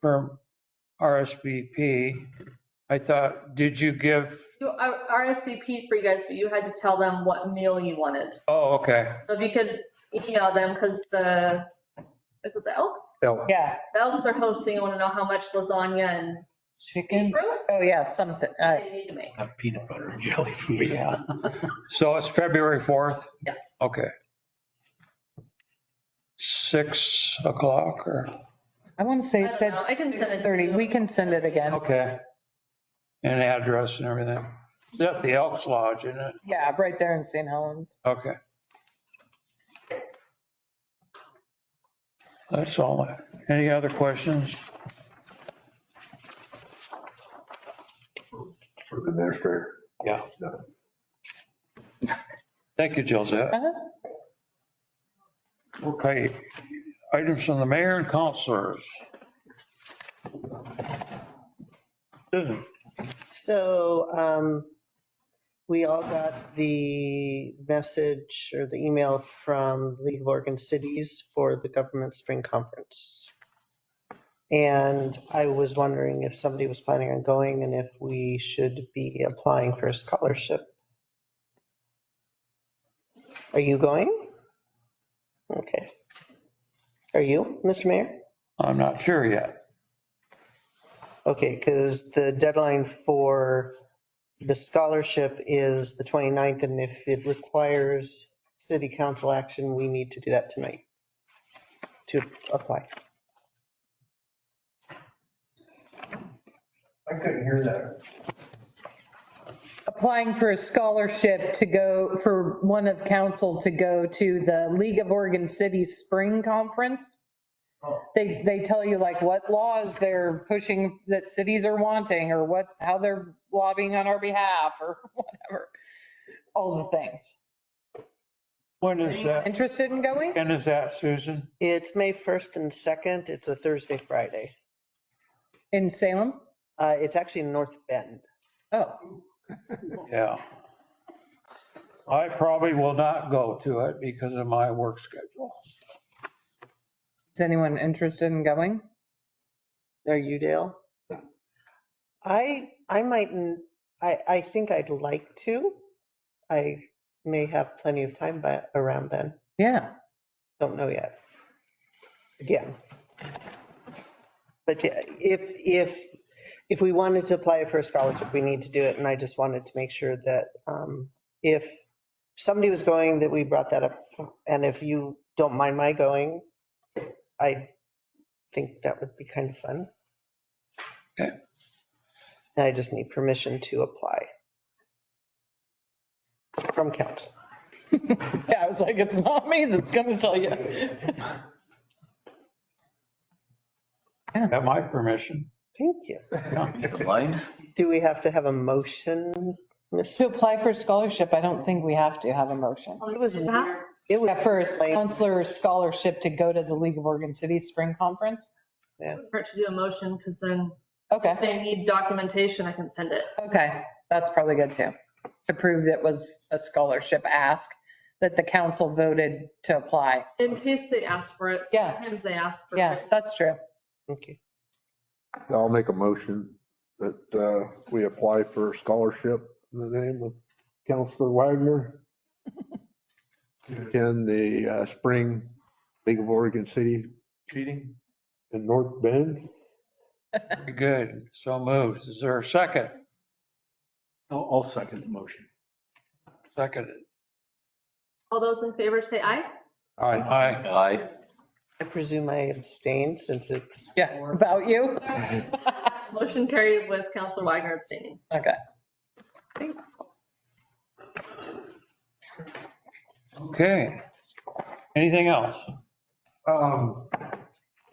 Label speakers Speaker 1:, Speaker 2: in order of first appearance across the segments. Speaker 1: for RSVP, I thought, did you give,
Speaker 2: You I RSVP'd for you guys, but you had to tell them what meal you wanted.
Speaker 1: oh, okay.
Speaker 2: So if you could email them, because the, is it the Elks?
Speaker 1: Elk.
Speaker 3: Yeah,
Speaker 2: The Elks are hosting, I want to know how much lasagna and
Speaker 3: chicken.
Speaker 2: roast
Speaker 3: Oh, yeah, something. uh,
Speaker 2: they need to make.
Speaker 4: Have peanut butter and jelly for me.
Speaker 5: Yeah.
Speaker 1: So it's February 4th?
Speaker 2: Yes.
Speaker 1: Okay. Six o'clock or,
Speaker 3: I want to say
Speaker 2: I
Speaker 3: it
Speaker 2: don't
Speaker 3: said
Speaker 2: know. I can send it to
Speaker 3: 6:30.
Speaker 2: you.
Speaker 3: We can send it again.
Speaker 1: okay. And address and everything. Is that the Elks Lodge, isn't it?
Speaker 3: Yeah, right there in St. Helens.
Speaker 1: Okay. That's all. I- Any other questions?
Speaker 4: For the administrator.
Speaker 1: Yeah. Thank you, Josette.
Speaker 3: Uh-huh.
Speaker 1: Okay, items from the mayor and councilors. Susan,
Speaker 5: So um, we all got the message or the email from League of Oregon Cities for the government spring conference. And I was wondering if somebody was planning on going and if we should be applying for a scholarship. Are you going? Okay. Are you, Mr. Mayor?
Speaker 1: I'm not sure yet.
Speaker 5: Okay, because the deadline for the scholarship is the 29th, and if it requires city council action, we need to do that tonight to apply.
Speaker 4: I couldn't hear that.
Speaker 3: Applying for a scholarship to go, for one of council to go to the League of Oregon Cities Spring Conference.
Speaker 4: Oh.
Speaker 3: They, they tell you like what laws they're pushing that cities are wanting or what, how they're lobbying on our behalf or whatever. All the things.
Speaker 1: When is that,
Speaker 3: Interested in going?
Speaker 1: when is that, Susan?
Speaker 5: It's May 1st and 2nd. It's a Thursday, Friday.
Speaker 3: In Salem?
Speaker 5: Uh, It's actually in North Bend.
Speaker 3: Oh,
Speaker 1: Yeah. I probably will not go to it because of my work schedule.
Speaker 3: is anyone interested in going?
Speaker 5: Are you, Dale? I, I mightn't, I, I think I'd like to. I may have plenty of time by, around then.
Speaker 3: Yeah.
Speaker 5: Don't know yet. Again. But yeah, if, if, if we wanted to apply for a scholarship, we need to do it. And I just wanted to make sure that um, if somebody was going, that we brought that up. And if you don't mind my going, I think that would be kind of fun.
Speaker 1: Okay.
Speaker 5: And I just need permission to apply from council.
Speaker 3: Yeah, I was like, it's not me that's going to tell you.
Speaker 1: Got my permission.
Speaker 5: Thank you.
Speaker 4: Blind?
Speaker 5: Do we have to have a motion, Ms.
Speaker 3: To apply for a scholarship, I don't think we have to have a motion.
Speaker 5: It was
Speaker 2: Is
Speaker 5: weird.
Speaker 2: that-
Speaker 5: It was
Speaker 3: Yeah, first,
Speaker 5: like-
Speaker 3: counselor scholarship to go to the League of Oregon Cities Spring Conference.
Speaker 2: Hurt to do a motion, because then
Speaker 3: Okay,
Speaker 2: if they need documentation, I can send it.
Speaker 3: okay, that's probably good too. To prove that was a scholarship ask that the council voted to apply.
Speaker 2: In case they ask for it.
Speaker 3: Yeah.
Speaker 2: Sometimes they ask for
Speaker 3: Yeah,
Speaker 2: it.
Speaker 3: that's true.
Speaker 5: Okay.
Speaker 6: I'll make a motion that uh, we apply for a scholarship in the name of Counselor Wagner. In the uh, spring League of Oregon City
Speaker 4: Cheating?
Speaker 6: in North Bend.
Speaker 1: Very Good. So moved. Is there a second?
Speaker 4: I'll, I'll second the motion.
Speaker 1: Second.
Speaker 2: All those in favor say aye.
Speaker 6: Aye.
Speaker 1: Aye.
Speaker 4: Aye.
Speaker 5: I presume I abstain since it's.
Speaker 3: Yeah, about you.
Speaker 2: Motion carried with Counselor Wagner abstaining.
Speaker 3: Okay.
Speaker 1: Okay. Anything else?
Speaker 6: Um,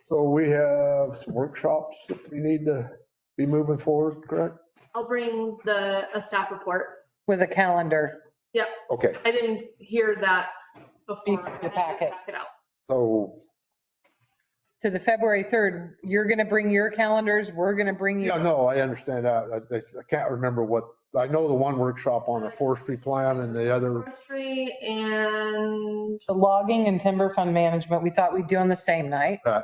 Speaker 6: So we have some workshops that we need to be moving forward, correct?
Speaker 2: I'll bring the, a staff report.
Speaker 3: With a calendar.
Speaker 6: Okay,
Speaker 2: I didn't hear that before.
Speaker 3: Before the
Speaker 2: I didn't
Speaker 3: packet.
Speaker 2: Pack it out.
Speaker 6: so,
Speaker 3: to the February 3rd, you're going to bring your calendars, we're going to bring you.
Speaker 6: yeah, no, I understand that. I I can't remember what, I know the one workshop on the forestry plan and the other,
Speaker 2: Forestry and
Speaker 3: The logging and timber fund management, we thought we'd do on the same night.
Speaker 6: Right.